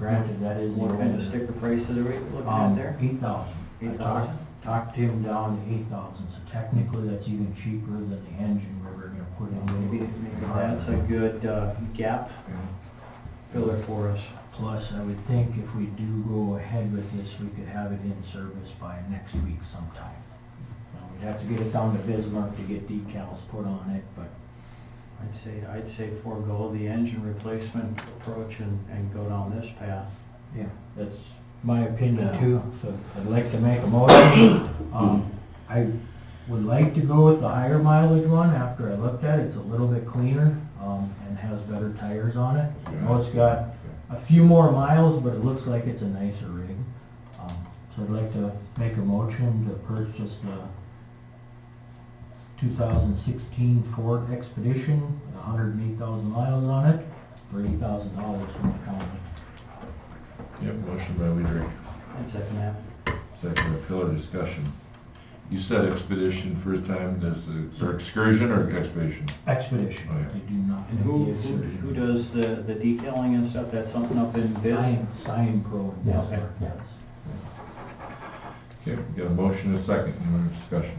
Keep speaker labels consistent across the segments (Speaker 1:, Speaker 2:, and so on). Speaker 1: granted, that is
Speaker 2: What
Speaker 1: the
Speaker 2: kind of
Speaker 1: only.
Speaker 2: sticker prices are we looking at
Speaker 1: Um,
Speaker 2: there?
Speaker 1: eight thousand. I
Speaker 2: 8,000?
Speaker 1: talked, talked him down to eight thousand, so technically that's even cheaper than the engine we were gonna put in.
Speaker 2: Maybe, maybe that's a good uh, gap filler for us.
Speaker 1: Plus, I would think if we do go ahead with this, we could have it in service by next week sometime. Now, We'd have to get it down to Bismarck to get decals put on it, but
Speaker 2: I'd say, I'd say forego the engine replacement approach and, and go down this path.
Speaker 1: Yeah, that's my opinion
Speaker 2: Yeah.
Speaker 1: too, so I'd like to make a motion. Um, I would like to go with the higher mileage one after I looked at it, it's a little bit cleaner, um, and has better tires on it. I know it's got a few more miles, but it looks like it's a nicer rig. Um, So I'd like to make a motion to purchase the 2016 Ford Expedition, 108,000 miles on it, for $8,000 from the county.
Speaker 3: Yep, motion by Weidrich,
Speaker 2: I'd second that.
Speaker 3: second by Pillar, discussion. You said expedition first time, this is, uh, or excursion or expedition?
Speaker 1: Expedition,
Speaker 3: Oh, yeah.
Speaker 1: they do not.
Speaker 2: And who, who who does the, the detailing and stuff? That's something up in Biz?
Speaker 1: Sign, sign pro. and
Speaker 2: Yeah,
Speaker 1: Bismarck,
Speaker 2: yeah.
Speaker 1: yes.
Speaker 3: Okay, we got a motion and a second, any more discussion?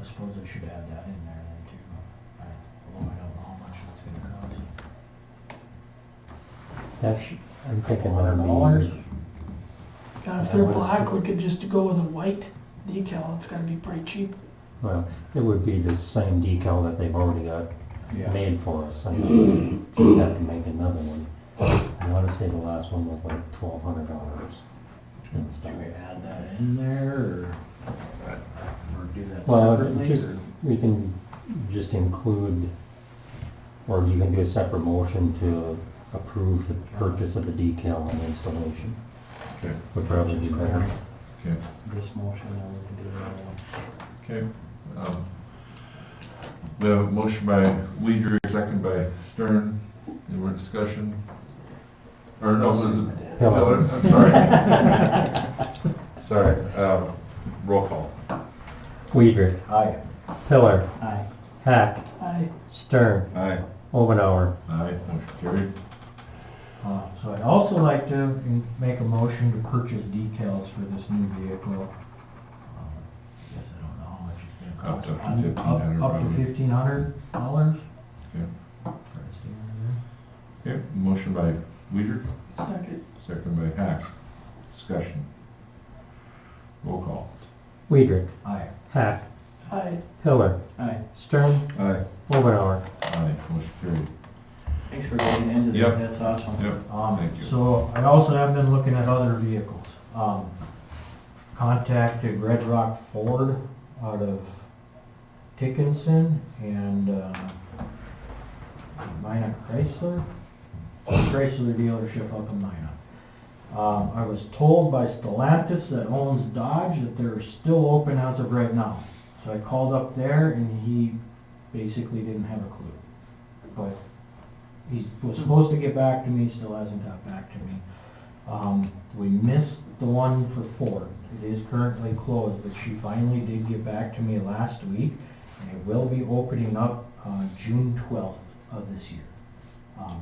Speaker 1: I suppose I should add that in there then too. I- Although I don't know how much that's gonna cost.
Speaker 4: That's, I'm thinking one
Speaker 1: Dollars?
Speaker 5: God, if they're black, we could just go with a white decal, it's gotta be pretty cheap.
Speaker 4: Well, it would be the same decal that they've already got
Speaker 2: Yeah.
Speaker 4: made for us. I mean, Just have to make another one. I want to say the last one was like twelve hundred dollars and
Speaker 1: Do
Speaker 4: stuff.
Speaker 1: we add that in there or? Or do that
Speaker 4: Well,
Speaker 1: separately?
Speaker 4: just,
Speaker 1: or-
Speaker 4: we can just include, or you can do a separate motion to approve the purchase of the decal and installation.
Speaker 3: Okay,
Speaker 4: Would probably be better.
Speaker 3: okay,
Speaker 2: This motion, and we can do the other one.
Speaker 3: okay. Um, We have a motion by Weidrich, second by Stern, any more discussion? Or no, was it Pillar, I'm sorry. Sorry, um, roll call.
Speaker 4: Weidrich.
Speaker 1: Aye.
Speaker 4: Pillar.
Speaker 2: Aye.
Speaker 4: Hack.
Speaker 5: I,
Speaker 4: Stern.
Speaker 3: Aye.
Speaker 4: Omenauer.
Speaker 3: Aye, motion carried.
Speaker 1: Uh, So I'd also like to in- make a motion to purchase decals for this new vehicle. Um, Guess I don't know how much it's gonna
Speaker 3: Up
Speaker 1: cost.
Speaker 3: to
Speaker 1: Un- up-
Speaker 3: $1,500
Speaker 1: Up to
Speaker 3: probably.
Speaker 1: fifteen hundred dollars?
Speaker 3: Okay. Okay, motion by Weider,
Speaker 5: second,
Speaker 3: second by Hack. Discussion. Roll call.
Speaker 4: Weidrich.
Speaker 1: Aye.
Speaker 4: Hack.
Speaker 5: I,
Speaker 4: Pillar.
Speaker 2: Aye.
Speaker 4: Stern.
Speaker 3: Aye.
Speaker 4: Omenauer.
Speaker 3: Aye, motion carried.
Speaker 2: Thanks for getting into
Speaker 3: Yep.
Speaker 2: that, that's awesome.
Speaker 3: Yep,
Speaker 1: Um,
Speaker 3: Thank you.
Speaker 1: so I also have been looking at other vehicles. Um, contacted Red Rock Ford out of Dickinson and, uh, Minot Chrysler, Chrysler dealership up in Minot. Um, I was told by Stellantis that owns Dodge that they're still open as of right now. So I called up there and he basically didn't have a clue. But he was supposed to get back to me, still hasn't got back to me. Um, we missed the one for Ford. It is currently closed, but she finally did get back to me last week, and it will be opening up, uh, June twelfth of this year. Um,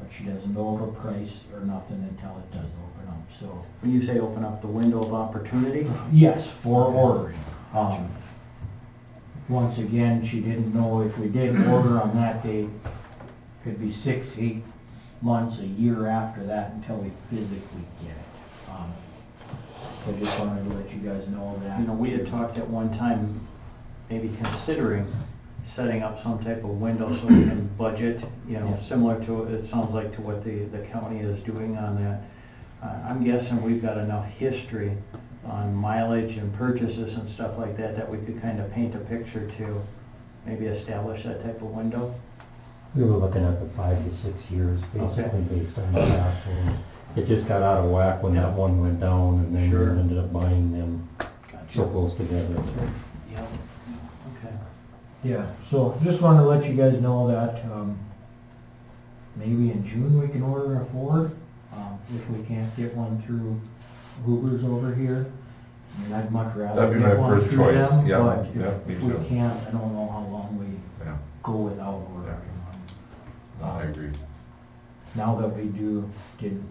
Speaker 1: but she doesn't know of a price or nothing until it does open up, so.
Speaker 2: When you say open up the window of opportunity?
Speaker 1: Yes, for ordering. Um, Once again, she didn't know if we did order on that date, could be six, eight months, a year after that until we physically get it. Um, So just wanted to let you guys know that.
Speaker 2: You know, we had talked at one time, maybe considering setting up some type of window so we can budget, you know,
Speaker 1: Yeah.
Speaker 2: similar to, it sounds like to what the, the county is doing on that. Uh, I'm guessing we've got enough history on mileage and purchases and stuff like that, that we could kind of paint a picture to maybe establish that type of window.
Speaker 4: We were looking at the five to six years, basically based on the last ones. It just got out of whack when that one went down and then we
Speaker 2: Sure.
Speaker 4: ended up buying them so
Speaker 2: Gotcha.
Speaker 4: close together.
Speaker 2: Yeah, okay.
Speaker 1: Yeah, so just wanted to let you guys know that, um, maybe in June we can order a Ford, um, if we can't get one through Hoover's over here. I mean, I'd much rather
Speaker 3: That'd be my
Speaker 1: get one
Speaker 3: first
Speaker 1: through
Speaker 3: choice,
Speaker 1: them,
Speaker 3: yeah,
Speaker 1: but
Speaker 3: yeah,
Speaker 1: if
Speaker 3: me
Speaker 1: if we
Speaker 3: too.
Speaker 1: can't, I don't know how long we
Speaker 3: yeah,
Speaker 1: go without ordering one.
Speaker 3: I agree.
Speaker 1: Now that we do, did